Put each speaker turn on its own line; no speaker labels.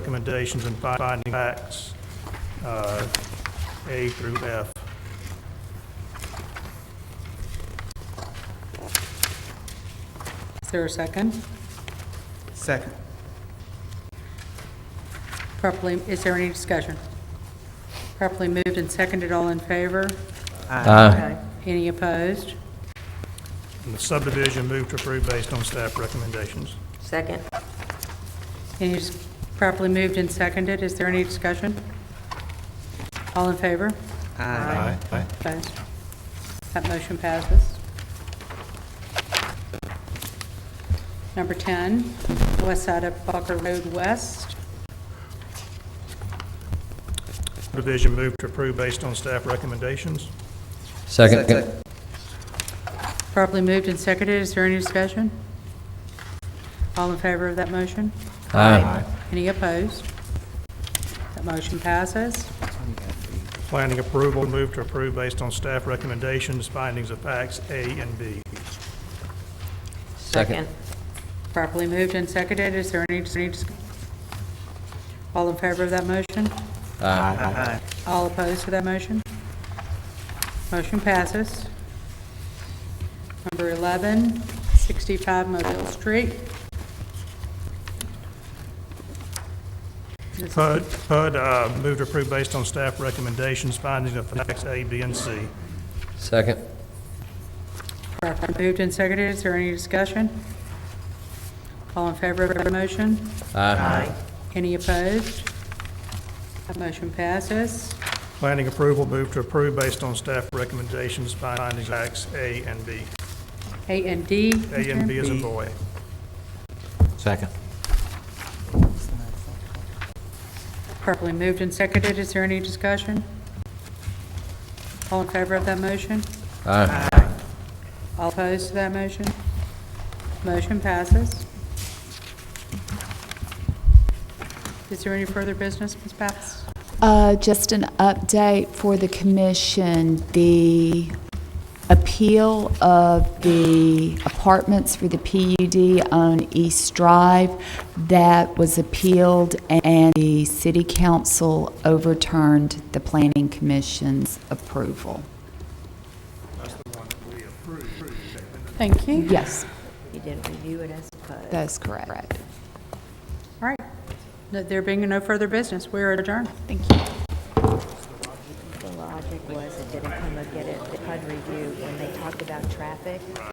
recommendations and finding facts, uh, A through F.
Is there a second?
Second.
Properly, is there any discussion? Properly moved and seconded, all in favor? Aye. Any opposed?
And the subdivision moved to approve based on staff recommendations.
Second.
Any, dis- properly moved and seconded, is there any discussion? All in favor?
Aye.
Opposed? That motion passes. Number 10, west side of Barker Road West.
Subdivision moved to approve based on staff recommendations.
Second.
Properly moved and seconded, is there any discussion? All in favor of that motion?
Aye.
Any opposed? That motion passes.
Planning approval moved to approve based on staff recommendations, findings of facts, A and B.
Second.
Properly moved and seconded, is there any, any dis- all in favor of that motion?
Aye.
All opposed to that motion? Motion passes. Number 11, 65 Mobile Street. This is-
HUD, HUD uh, moved to approve based on staff recommendations, findings of facts, A, B, and C.
Second.
Properly moved and seconded, is there any discussion? All in favor of the motion?
Aye.
Any opposed? That motion passes.
Planning approval moved to approve based on staff recommendations, findings of facts, A and B.
A and D.
A and B is in
B.
boy.
Second.
Properly moved and seconded, is there any discussion? All in favor of that motion?
Aye.
All opposed to that motion? Motion passes. Is there any further business, Ms. Pappas?
Uh, Just an update for the commission. The appeal of the apartments for the PUD on East Drive, that was appealed, and the city council overturned the planning commission's approval.
Thank you.
Yes,
You didn't review it, I suppose.
that is correct.
All right. No- There being no further business, we are adjourned.
Thank you.
The logic was it didn't come up, get it, the HUD review, when they talked about traffic,